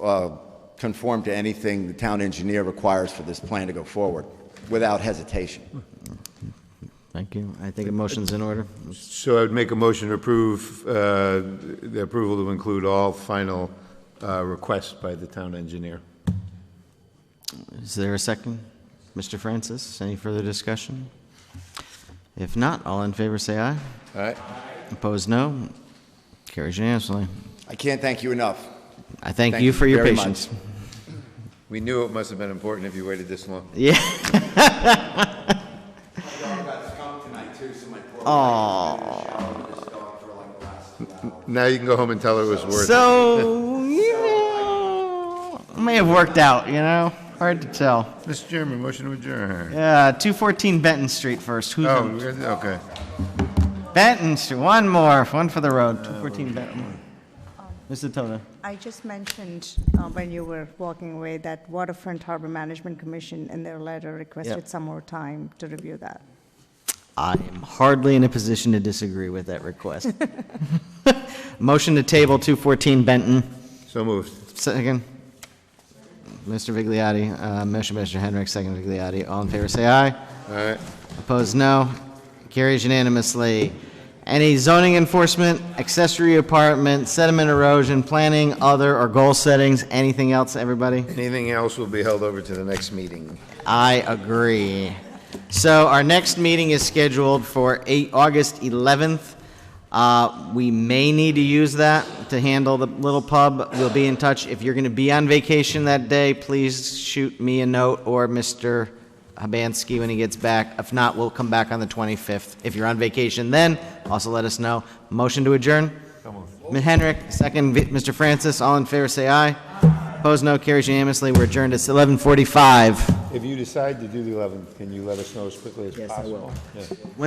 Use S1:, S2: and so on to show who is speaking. S1: uh, conform to anything the town engineer requires for this plan to go forward, without hesitation.
S2: Thank you. I think a motion's in order.
S3: So I would make a motion to approve, uh, the approval to include all final uh, requests by the town engineer.
S2: Is there a second? Mr. Francis, any further discussion? If not, all in favor say aye.
S3: All right?
S2: Opposed, no. Carries unanimously.
S1: I can't thank you enough.
S2: I thank
S1: Thank
S2: you
S1: you
S2: for your
S1: very
S2: patience.
S3: We knew it must have been important if you waited this long.
S2: Yeah.
S3: Now you can go home and tell her it was worth it.
S2: So, you know, may have worked out, you know? Hard to tell.
S3: Mr. Chairman, motion to adjourn.
S2: Yeah, 214 Benton Street first. Who's
S3: Oh,
S2: on-
S3: we're- okay.
S2: Benton Street, one more, one for the road, 214 Benton. Mr. Toda.
S4: I just mentioned uh, when you were walking away that Waterfront Harbor Management Commission in their letter requested some more time to review that.
S2: I am hardly in a position to disagree with that request. Motion to table 214 Benton.
S3: So moved.
S2: Second. Mr. Vigliotti, uh, motion by Mr. Henrik, second Vigliotti. All in favor, say aye.
S3: All right.
S2: Opposed, no. Carries unanimously. Any zoning enforcement, accessory apartment, sediment erosion, planning, other, or goal settings, anything else, everybody?
S3: Anything else will be held over to the next meeting.
S2: I agree. So our next meeting is scheduled for eight, August 11th. Uh, we may need to use that to handle the little pub. We'll be in touch. If you're going to be on vacation that day, please shoot me a note or Mr. Habansky when he gets back. If not, we'll come back on the 25th. If you're on vacation then, also let us know. Motion to adjourn? Ms. Henrik, second, Vi- Mr. Francis, all in favor, say aye. Opposed, no. Carries unanimously. We're adjourned. It's 11:45.
S3: If you decide to do the 11th, can you let us know as quickly as possible? Yes, I will.